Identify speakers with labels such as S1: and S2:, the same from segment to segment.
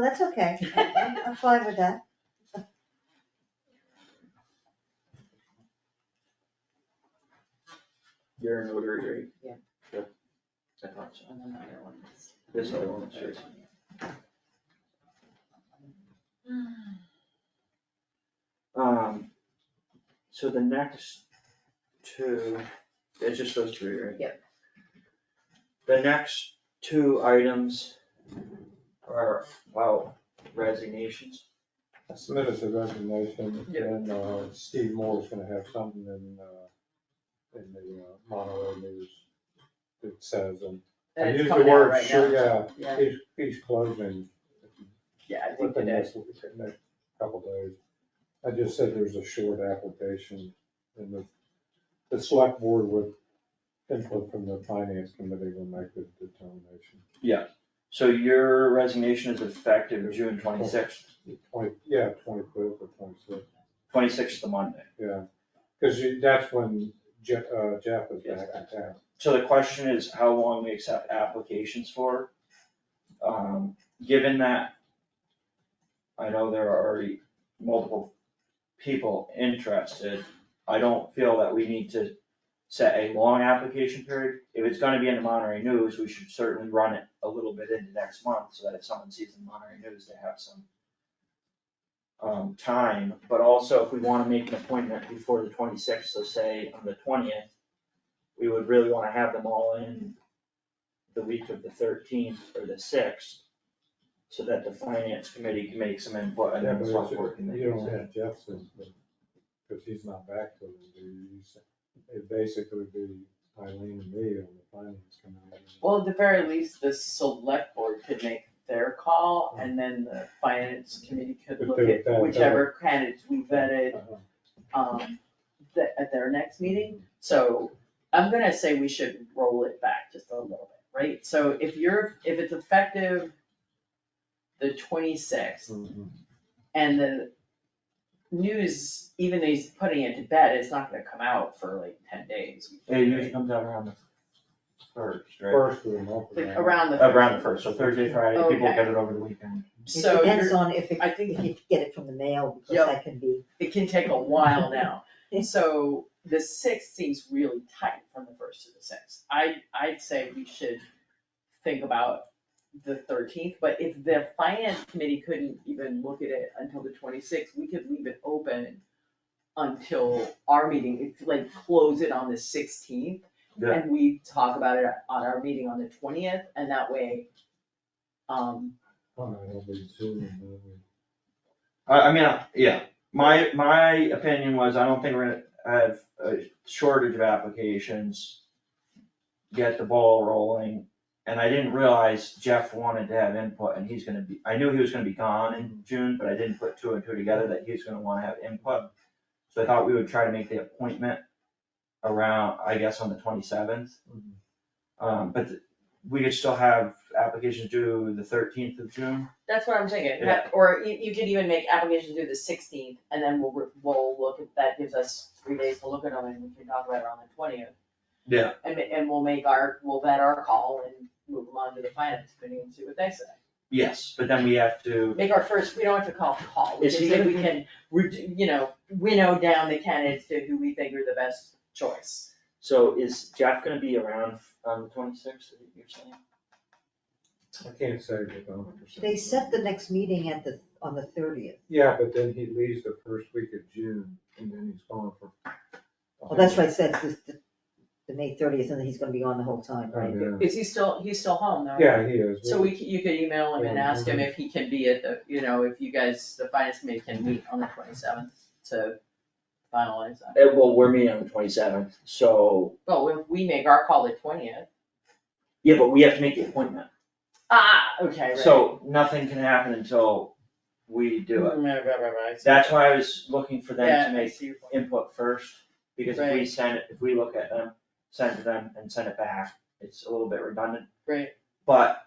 S1: Well, Oh, that's okay, I- I'm, I'm fine with that.
S2: You're in order, right?
S3: Yeah.
S2: Yep. I thought so.
S3: And then the other one is-
S2: This other one, sure.
S3: Mm.
S2: Um, so the next two, it's just those three, right?
S3: Yep.
S2: The next two items are about resignations.
S4: I submitted the resignation,
S2: Yeah.
S4: and uh, Steve Moore's gonna have something in, uh, in the uh, Monterey News that says, um,
S3: And
S4: and. I
S3: it's
S4: use the
S3: coming out
S4: word
S3: right
S4: sure,
S3: now.
S4: Yeah,
S3: Yeah,
S4: he's, he's closing
S3: yeah, I think
S4: within
S3: it is.
S4: this, within the couple days. I just said there's a short application, and the, the select board with input from the finance committee will make the determination.
S2: So your resignation is effective June twenty-sixth,
S4: Twenty, yeah, twenty-fifth or twenty-sixth.
S2: twenty-sixth of Monday.
S4: Yeah, because that's when Jeff, uh, Jeff is back in town.
S2: So the question is how long we accept applications for. Um, given that I know there are already multiple people interested, I don't feel that we need to set a long application period. If it's gonna be in the Monterey News, we should certainly run it a little bit into next month so that if someone sees the Monterey News, they have some um, time, but also if we wanna make an appointment before the twenty-sixth, so say on the twentieth, we would really wanna have them all in the week of the thirteenth or the sixth, so that the finance committee can make some input and
S4: Yeah,
S2: then
S4: but
S2: the
S4: it's-
S2: select board can make
S4: You don't
S2: some.
S4: have Jeff's input, because he's not back till the, he's, it'd basically be Eileen and me on the finance committee.
S3: Well, at the very least, the select board could make their call and then the finance committee could
S4: But
S3: look
S4: Mm-hmm. they-
S3: at
S4: that- that-
S3: whichever candidates we vetted,
S4: Uh-huh.
S3: um, the, at their next meeting. So I'm gonna say we should roll it back just a little bit, right? So if you're, if it's effective the twenty-sixth
S4: Mhm.
S3: and the news, even though he's putting it to bed, it's not gonna come out for like ten days.
S2: It usually comes out around the first, right? Uh,
S4: First of the month.
S3: Like around the.
S2: Around the first, so Thursday, Friday, people
S3: Okay.
S2: get it over the weekend.
S1: It
S3: So
S1: depends
S3: you're,
S1: on if it,
S3: I think-
S1: if you get it from the mail,
S3: Yeah.
S1: because that can be,
S3: it can take a while now. So the sixth seems really tight from the first to the sixth. I, I'd say we should think about the thirteenth, but if the finance committee couldn't even look at it until the twenty-sixth, we could leave it open until our meeting, It's like close it on the sixteenth.
S2: Yeah.
S3: And we talk about it on our meeting on the twentieth, and that way, um,
S4: Oh, no, it'll be Zoom, and then we-
S2: I, I mean, I- yeah, my, my opinion was, I don't think we're gonna have a shortage of applications. Get the ball rolling, and I didn't realize Jeff wanted to have input, and he's gonna be, I knew he was gonna be gone in June, but I didn't put two and two together that he was gonna wanna have input. So I thought we would try to make the appointment around, I guess, on the twenty-seventh.
S4: Mhm.
S2: Um, but th- we could still have applications due the thirteenth of June.
S3: That's what I'm thinking,
S2: Yeah.
S3: Ha- or you, you could even make applications due the sixteenth, and then we'll, re- we'll look at, that gives us three days to look at them, and we can talk about it on the twentieth.
S2: Yeah.
S3: And, ma- and we'll make our, we'll vet our call and move them on to the finance committee and see what they say.
S2: Yes, but then we have to
S3: Make our first, we don't have to call a call, we
S2: Is
S3: can
S2: he
S3: say
S2: gonna
S3: we
S2: be-
S3: can, redu- you know, winnow down the candidates to who we think are the best choice.
S2: So is Jeff gonna be around on the twenty-sixth, you're saying?
S4: I can't say with a hundred percent.
S1: they set the next meeting at the, on the thirtieth.
S4: Yeah, but then he leaves the first week of June, and then he's gone for.
S3: Oh,
S1: Well, that's why I said it's the, the May thirtieth, and then he's gonna be on the whole time,
S4: Oh,
S1: right?
S4: yeah.
S3: Is he still, he's still home though?
S4: Yeah, he is.
S3: So we, c- you could email him and ask him if he can be at the, you know, if you guys, the finance committee can meet on the twenty-seventh to finalize that.
S2: Eh, well, we're meeting on the twenty-seventh, so,
S3: Well, if we make our call the twentieth.
S2: yeah, but we have to make the appointment,
S3: Ah, okay, right.
S2: so nothing can happen until we do it.
S3: Mm, right, right, right, right.
S2: That's why I was looking for them to
S3: Yeah, I
S2: make
S3: see your point.
S2: input first, because if we
S3: Right.
S2: send it, if we look at them, send it to them and send it back, it's a little bit redundant.
S3: Right.
S2: But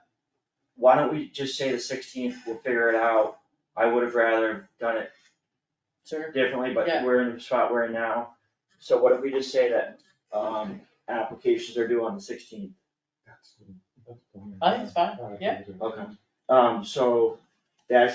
S2: why don't we just say the sixteenth, we'll figure it out, I would have rather done it
S3: Sure.
S2: differently, but
S3: Yeah.
S2: we're in the spot we're in now. So what if we just say that, um, applications are due on the sixteenth?
S4: That's- that's the- Ah,
S3: I think it's fine, yeah.
S2: Okay. Um, so